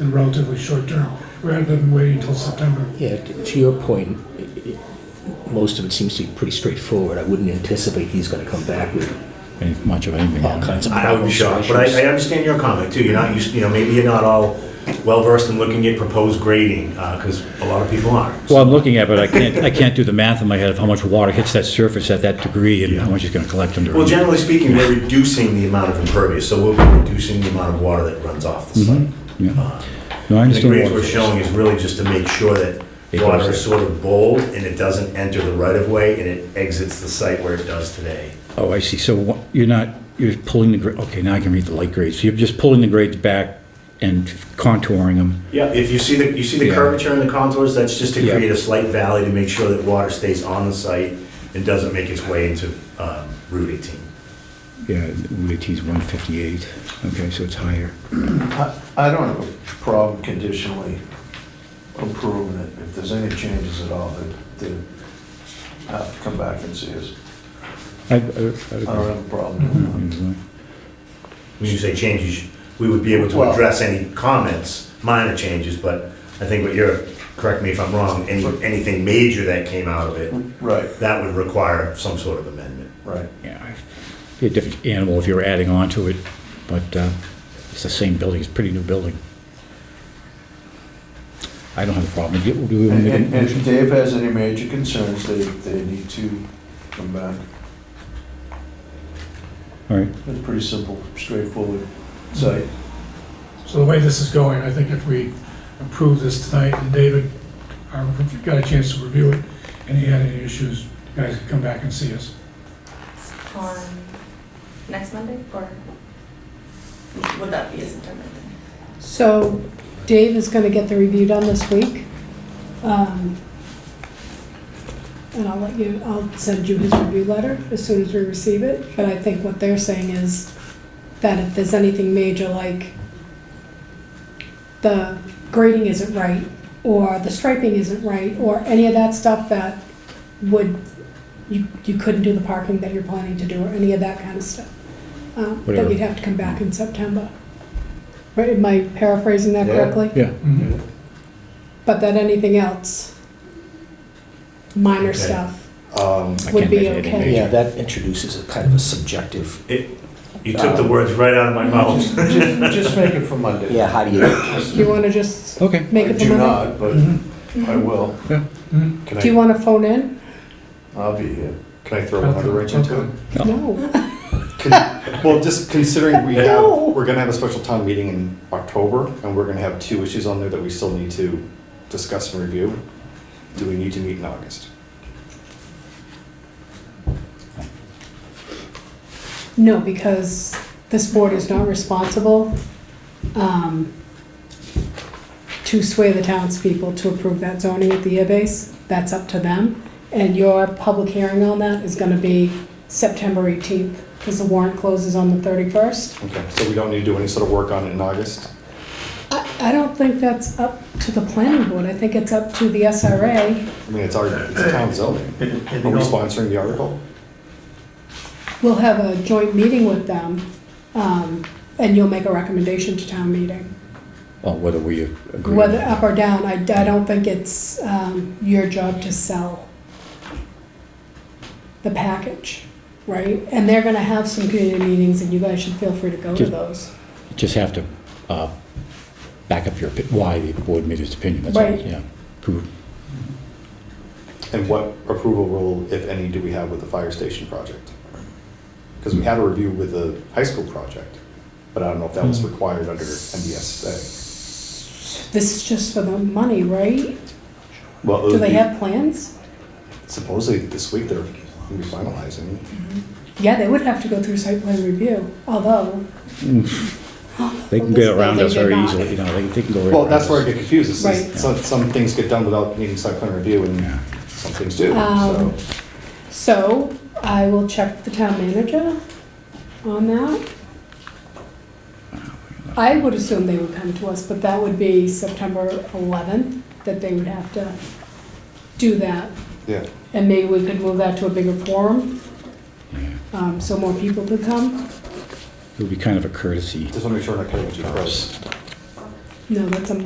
in relatively short term, rather than waiting until September. Yeah, t- to your point, i i most of it seems to be pretty straightforward. I wouldn't anticipate he's going to come back with any- much of anything. all kinds of I would be problems. or shocked, but issues. I, I understand your comment too, you're not used, you know, maybe you're not all well-versed in looking at proposed grading, because a lot of people aren't. Well, I'm looking at, it, but I can't, I can't do the math in my head of how much water hits that surface at that degree and how much it's gonna collect under. Well, generally speaking, we're reducing the amount of impervious, so we'll be reducing the amount of water that runs off the Mm-hmm. site. Yeah. No, I uh, The grades understand we're water. showing is really just to make sure that It water goes is sort of bold and it doesn't enter the right-of-way and it exits the site where it does today. Oh, I see, so wha- you're not, you're pulling the, gra- okay, now I can read the light grades. So You're just pulling the grades back and contouring them. Yeah, if you see the, you see the Yeah. curvature and the contours, that's just to Yeah. create a slight valley to make sure that water stays on the site and doesn't make its way into um, Route 18. Yeah, Route is 158, okay, so it's higher. I I don't have a problem conditionally approving it. If there's any changes at all, they they have to come back and see us. I, I- I would I don't have a problem doing that. agree. When you say changes, we would be able to Well- address any comments, minor changes, but I think what you're, correct me if I'm wrong, any, anything major that came out of it, Right, that would require some sort of amendment. right. Yeah, be a different animal if you were adding on to it, but uh, it's the same building, it's a pretty new building. I don't have a problem. Do we want And to make a and if motion? Dave has any major concerns, they, they need to come back. All right, It's pretty simple, straightforward site. So the way this is going, I think if we approve this tonight, and David, uh, if you've got a chance to review it, and he had any issues, you guys can come back and see us. on next Monday, or would that be a September thing? So Dave is gonna get the review done this week. Um, And I'll let you, I'll send you his review letter as soon as we receive it. But I think what they're saying is that if there's anything major, like the grading isn't right, or the striping isn't right, or any of that stuff that would, you, you couldn't do the parking that you're planning to do, or any of that kind of stuff, um, that Whatever. you'd have to come back in September. Right, am I paraphrasing that Yeah. correctly? yeah, But that anything else, minor Okay. stuff, Um, I would can't imagine be anything okay. Yeah, that introduces a kind of a subjective, It, you Uh, took the words right out of my mouth. Just just make it for Monday. yeah, how do you, do you wanna just okay. make I it for Oh, do Monday? Mm-hmm. not, but Mm-hmm. I will. Yeah. Can Do you I, wanna phone in? I'll be here. Can I throw another wrench into it? No. No, Can- Well, just considering we have, No. we're gonna have a special town meeting in October, and we're gonna have two issues on there that we still need to discuss and review. Do we need to meet in August? no, because this board is not responsible, um, to swear the townspeople to approve that zoning at the year base, that's up to them. And your public hearing on that is gonna be September eighteenth, cause the warrant closes on the thirty-first. Okay, so we don't need to do any sort of work on it in August? I, I don't think that's up to the planning board, I think it's up to the SRA. I mean, it's our, it's town zoning. And- Are and we also- sponsoring the article? We'll have a joint meeting with them, um, and you'll make a recommendation to town meeting. Well, whether we agree. Whether up or down, I, I don't think it's, um, your job to sell the package, right? And they're gonna have some community meetings, and you guys should feel free to go to Just- those. Just have to uh, back up your, opi- why the board made its opinion, that's all, Right. yeah. Prove- And what approval rule, if any, do we have with the fire station project? Because we had a review with the high school project, but I don't know if that was required under MBSA. This is just for the money, right? Well, it Do would they be- have plans? Supposedly this week they're gonna be finalizing. Yeah, they would have to go through site plan review, although. They can get around us very easily, you know, they they can go right around us. Well, that's where I get confused, is Right. some, some things get done without needing site plan review Yeah. and some things do, so. Um, So I will check the town manager on that. I would assume they would come to us, but that would be September 11th, that they would have to do that. Yeah, And maybe we could move that to a bigger forum, Yeah. um, so more people could come. It would be kind of a courtesy. just wanna make sure I'm not cutting you off. No, that's a